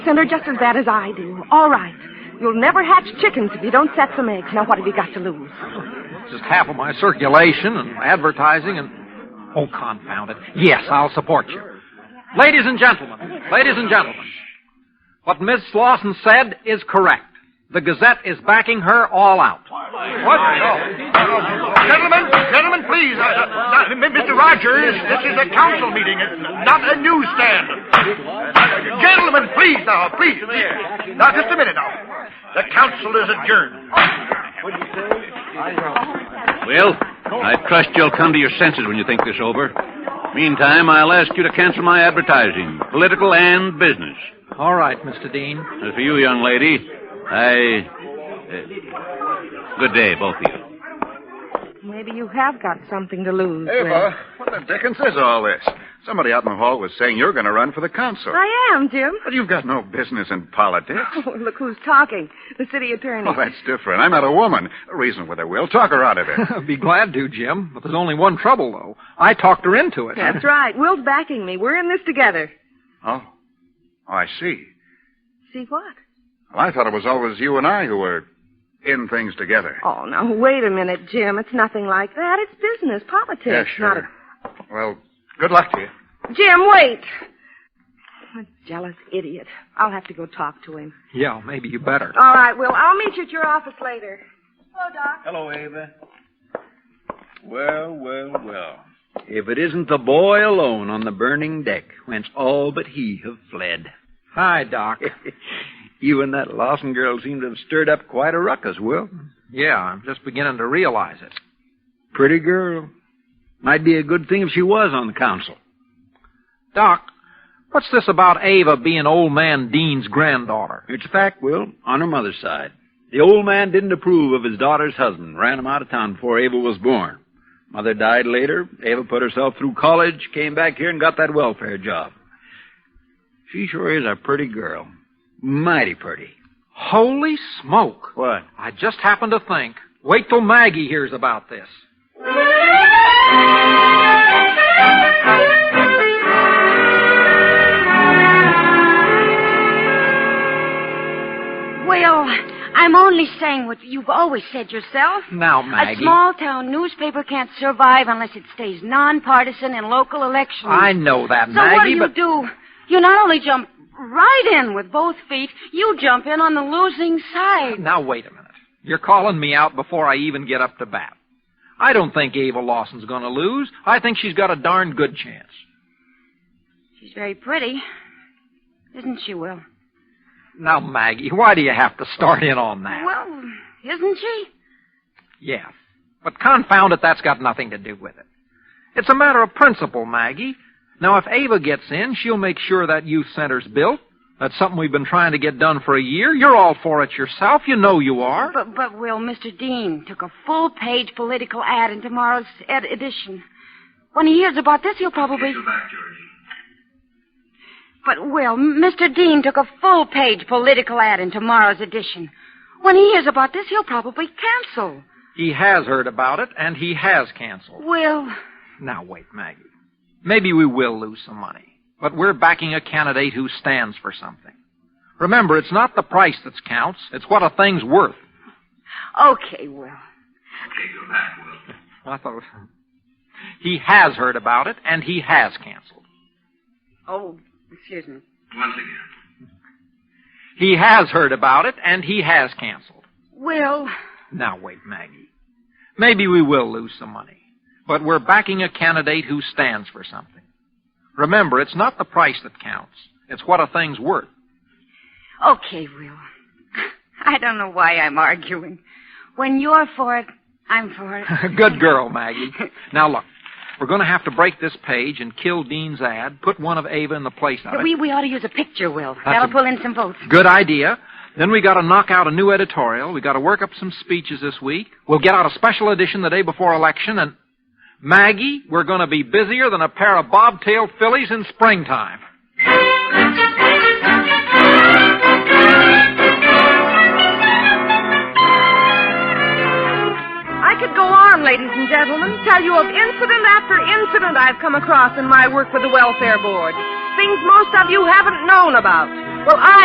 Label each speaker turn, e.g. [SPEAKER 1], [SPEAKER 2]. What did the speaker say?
[SPEAKER 1] Send her just as bad as I do. All right. You'll never hatch chickens if you don't set some eggs. Now, what have you got to lose?
[SPEAKER 2] Just half of my circulation and advertising and. Oh, confound it. Yes, I'll support you. Ladies and gentlemen, ladies and gentlemen, what Miss Lawson said is correct. The Gazette is backing her all out.
[SPEAKER 3] What? No. Gentlemen, gentlemen, please. Uh, uh, uh, Mr. Rogers, this is a council meeting, uh, not a newsstand. Gentlemen, please now, please. please. Now, just a minute now. The council is adjourned.
[SPEAKER 4] Well, I trust you'll come to your senses when you think this over. Meantime, I'll ask you to cancel my advertising, political and business.
[SPEAKER 2] All right, Mr. Dean.
[SPEAKER 4] As for you, young lady, I. uh, good day, both of you.
[SPEAKER 1] Maybe you have got something to lose. Will.
[SPEAKER 5] Ava, what the dickens is all this? Somebody out in the hall was saying you're going to run for the council.
[SPEAKER 1] I am, Jim.
[SPEAKER 5] But you've got no business in politics.
[SPEAKER 1] Oh, look who's talking. The city attorney.
[SPEAKER 5] Well, that's different. I'm not a woman. Reason with her, Will. Talk her out of it.
[SPEAKER 2] Be glad to, Jim. But there's only one trouble, though. I talked her into it.
[SPEAKER 1] That's right. Will's backing me. We're in this together.
[SPEAKER 5] oh. Oh, I see.
[SPEAKER 1] See what?
[SPEAKER 5] Well, I thought it was always you and I who were in things together.
[SPEAKER 1] Oh, now, wait a minute, Jim. It's nothing like that. It's business, politics.
[SPEAKER 5] yeah,
[SPEAKER 1] Not
[SPEAKER 5] sure. Well, good luck to you.
[SPEAKER 1] a... Jim, wait. I'm a jealous idiot. I'll have to go talk to him.
[SPEAKER 2] Yeah, maybe you better.
[SPEAKER 1] All right, Will. I'll meet you at your office later. Hello, Doc.
[SPEAKER 6] Hello, Ava. Well, well, well. If it isn't the boy alone on the burning deck, whence all but he have fled.
[SPEAKER 2] Hi, Doc.
[SPEAKER 6] you and that Lawson girl seem to have stirred up quite a ruckus, Will.
[SPEAKER 2] Yeah, I'm just beginning to realize it.
[SPEAKER 6] Pretty girl. Might be a good thing if she was on the council.
[SPEAKER 2] Doc, what's this about Ava being old man Dean's granddaughter?
[SPEAKER 6] It's a fact, Will, on her mother's side. The old man didn't approve of his daughter's husband, ran him out of town before Ava was born. Mother died later. Ava put herself through college, came back here, and got that welfare job. She sure is a pretty girl. Mighty pretty.
[SPEAKER 2] Holy smoke!
[SPEAKER 6] What?
[SPEAKER 2] I just happened to think. Wait till Maggie hears about this.
[SPEAKER 7] Well, I'm only saying what you've always said yourself.
[SPEAKER 2] Now,
[SPEAKER 7] A
[SPEAKER 2] Maggie.
[SPEAKER 7] small town newspaper can't survive unless it stays nonpartisan in local elections.
[SPEAKER 2] I know that,
[SPEAKER 7] so
[SPEAKER 2] Maggie,
[SPEAKER 7] what do you
[SPEAKER 2] but
[SPEAKER 7] do? You not only jump right in with both feet, you jump in on the losing side.
[SPEAKER 2] now wait a minute. You're calling me out before I even get up to bat. I don't think Ava Lawson's going to lose. I think she's got a darn good chance.
[SPEAKER 7] She's very pretty, isn't she, Will?
[SPEAKER 2] Now, Maggie, why do you have to start in on that?
[SPEAKER 7] Well, isn't she?
[SPEAKER 2] Yeah. But confound it, that's got nothing to do with it. It's a matter of principle, Maggie. Now, if Ava gets in, she'll make sure that youth center's built. That's something we've been trying to get done for a year. You're all for it yourself. You know you are.
[SPEAKER 7] But, but Will, Mr. Dean took a full-page political ad in tomorrow's ed- edition. When he hears about this, he'll probably. But Will, Mr. Dean took a full-page political ad in tomorrow's edition. When he hears about this, he'll probably cancel.
[SPEAKER 2] He has heard about it, and he has canceled.
[SPEAKER 7] Will,
[SPEAKER 2] Now, wait, Maggie. Maybe we will lose some money, but we're backing a candidate who stands for something. Remember, it's not the price that counts, it's what a thing's worth.
[SPEAKER 7] okay, Will.
[SPEAKER 2] I thought. He has heard about it, and he has canceled.
[SPEAKER 7] Oh, excuse me.
[SPEAKER 2] He has heard about it, and he has canceled.
[SPEAKER 7] Will,
[SPEAKER 2] Now, wait, Maggie. Maybe we will lose some money, but we're backing a candidate who stands for something. Remember, it's not the price that counts. It's what a thing's worth.
[SPEAKER 7] okay, Will. I don't know why I'm arguing. When you're for it, I'm for it.
[SPEAKER 2] Good girl, Maggie. Now, look, we're going to have to break this page and kill Dean's ad, put one of Ava in the place of it.
[SPEAKER 7] We, we ought to use a picture, Will.
[SPEAKER 2] a-
[SPEAKER 7] That'll pull in some votes.
[SPEAKER 2] Good idea. Then we got to knock out a new editorial. We got to work up some speeches this week. We'll get out a special edition the day before election. And Maggie, we're going to be busier than a pair of bobtail fillies in springtime.
[SPEAKER 1] I could go on, ladies and gentlemen, tell you of incident after incident I've come across in my work with the Welfare Board. Things most of you haven't known about. Well, I